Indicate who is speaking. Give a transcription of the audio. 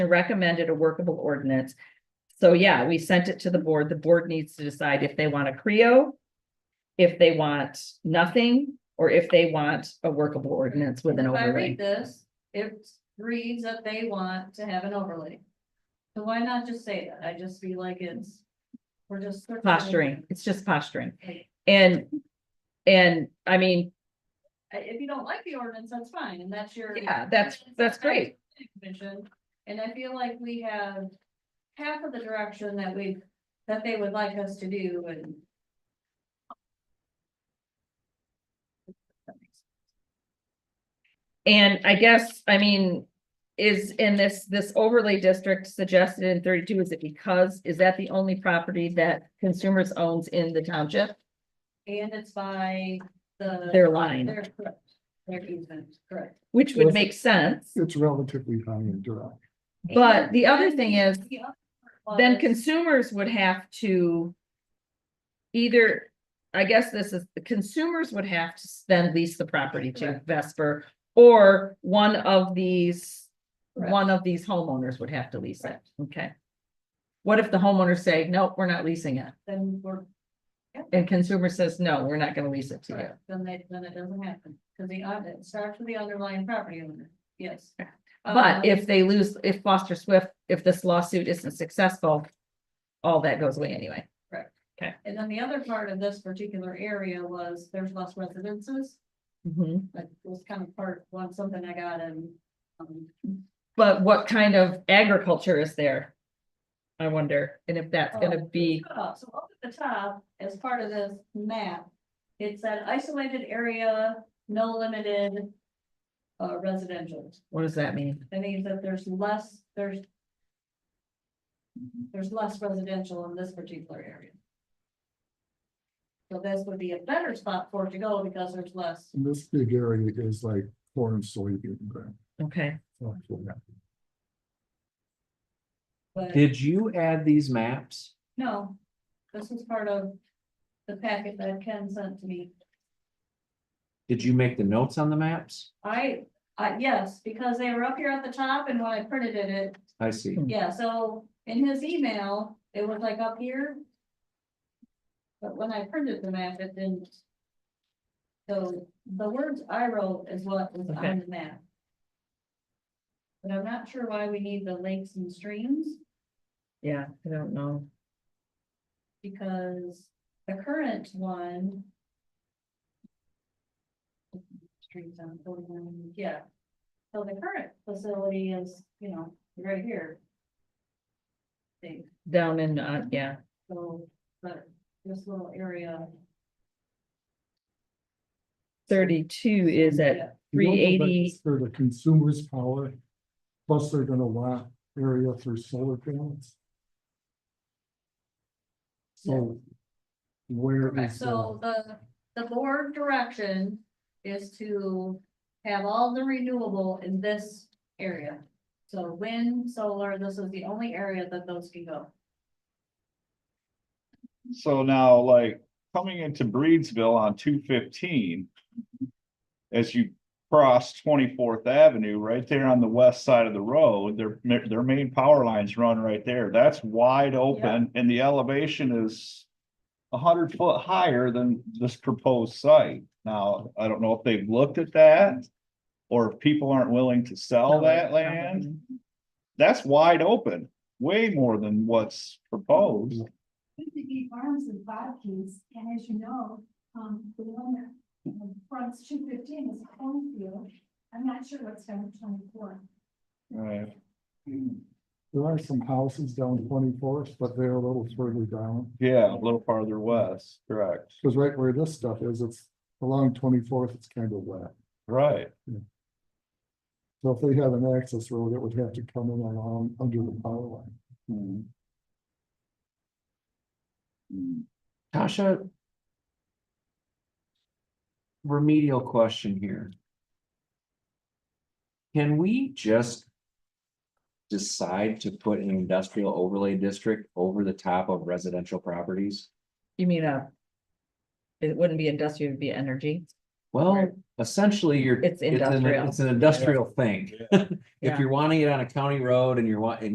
Speaker 1: recommended a workable ordinance. So yeah, we sent it to the board. The board needs to decide if they want a Creo, if they want nothing, or if they want a workable ordinance with an
Speaker 2: If I read
Speaker 1: overlay.
Speaker 2: this, it reads that they want to have an overlay. So why not just say that? I just feel like it's, we're just. circling.
Speaker 1: Posturing, it's just posturing.
Speaker 2: Like,
Speaker 1: And, and I mean,
Speaker 2: I- If you don't like the ordinance, that's fine, and that's your.
Speaker 1: yeah, that's, that's great.
Speaker 2: Commission, and I feel like we have half of the direction that we, that they would like us to do and.
Speaker 1: And I guess, I mean, is in this, this overlay district suggested in thirty-two, is it because, is that the only property that consumers owns in the township?
Speaker 2: And it's by the.
Speaker 1: Their line,
Speaker 2: They're correct. Their easement, correct.
Speaker 1: which would make sense,
Speaker 3: It's relatively high and dry.
Speaker 1: but the other thing is,
Speaker 2: The other part
Speaker 1: then
Speaker 2: was-
Speaker 1: consumers would have to. Either, I guess this is, the consumers would have to then lease the property to
Speaker 2: Correct.
Speaker 1: Vesper. Or one of these,
Speaker 2: Correct.
Speaker 1: one of these homeowners would have to lease it, okay? What if the homeowners say, nope, we're not leasing it,
Speaker 2: Then we're,
Speaker 1: and consumer says, no, we're not gonna lease it to you?
Speaker 2: then they, then it doesn't happen, because the, other- it starts with the underlying property owner, yes. Um,
Speaker 1: But if they lose, if Foster Swift, if this lawsuit isn't successful, all that goes away anyway.
Speaker 2: Um, And then the other part of this particular area was there's less residences,
Speaker 1: Mhm.
Speaker 2: that was kind of part, one, something I got in. um,
Speaker 1: But what kind of agriculture is there? I wonder, and if that's gonna be,
Speaker 2: Uh, So up at the top, as part of this map, it's an isolated area, no limited. Uh, residential,
Speaker 1: what does that mean?
Speaker 2: that means that there's less, there's. There's less residential in this particular area. So this would be a better spot for it to go because there's less,
Speaker 3: And this big area is like corn, soybean ground.
Speaker 1: Okay,
Speaker 3: So it's like that.
Speaker 2: but
Speaker 4: Did you add these maps?
Speaker 2: no, this was part of. The packet that Ken sent to me,
Speaker 4: Did you make the notes on the maps?
Speaker 2: I, I, yes, because they were up here at the top and when I printed it, it
Speaker 4: I see.
Speaker 2: Yeah, so in his email, it was like up here. But when I printed the map, it didn't. So the words I wrote is what was
Speaker 1: Okay.
Speaker 2: on the map. But I'm not sure why we need the lakes and streams,
Speaker 1: yeah, I don't know.
Speaker 2: because the current one. Streams on forty-one, yeah. So the current facility is, you know, right here. Thing.
Speaker 1: Down in, uh, yeah,
Speaker 2: So, but this little area.
Speaker 1: thirty-two is at,
Speaker 3: You don't know, but
Speaker 1: 380.
Speaker 3: it's For the consumer's power, plus they're gonna want area for solar panels. So where
Speaker 2: Correct,
Speaker 3: is
Speaker 2: so
Speaker 3: the,
Speaker 2: the, the board direction is to have all the renewable in this area. So wind, solar, this is the only area that those can go.
Speaker 5: So now, like, coming into Breedsville on two fifteen. As you cross Twenty-Fourth Avenue, right there on the west side of the road, their, their main power lines run right there. That's wide open and the elevation is. A hundred foot higher than this proposed site. Now, I don't know if they've looked at that. Or if people aren't willing to sell
Speaker 1: No,
Speaker 5: that
Speaker 1: probably.
Speaker 5: land. That's wide open, way more than what's proposed.
Speaker 6: fifty feet farms and bodkins, and as you know, um, the one that um, fronts two fifteen is a cornfield. I'm not sure what's down twenty-four.
Speaker 5: Right.
Speaker 3: there are some houses down twenty-fourth, but they're a little further down.
Speaker 5: Yeah, a little farther west, correct,
Speaker 3: Cause right where this stuff is, it's along twenty-fourth, it's kind of wet.
Speaker 5: right,
Speaker 3: So if they have an access road, it would have to come in along under the power line.
Speaker 5: Hmm.
Speaker 4: Tasha? Remedial question here. Can we just decide to put an industrial overlay district over the top of residential properties?
Speaker 1: you mean, uh. It wouldn't be industrial, it'd be energy.
Speaker 4: Well, essentially, you're.
Speaker 1: It's
Speaker 4: an-
Speaker 1: industrial.
Speaker 4: It's an industrial thing. If
Speaker 1: Yeah.
Speaker 4: you're wanting it on a county road and you're wanting,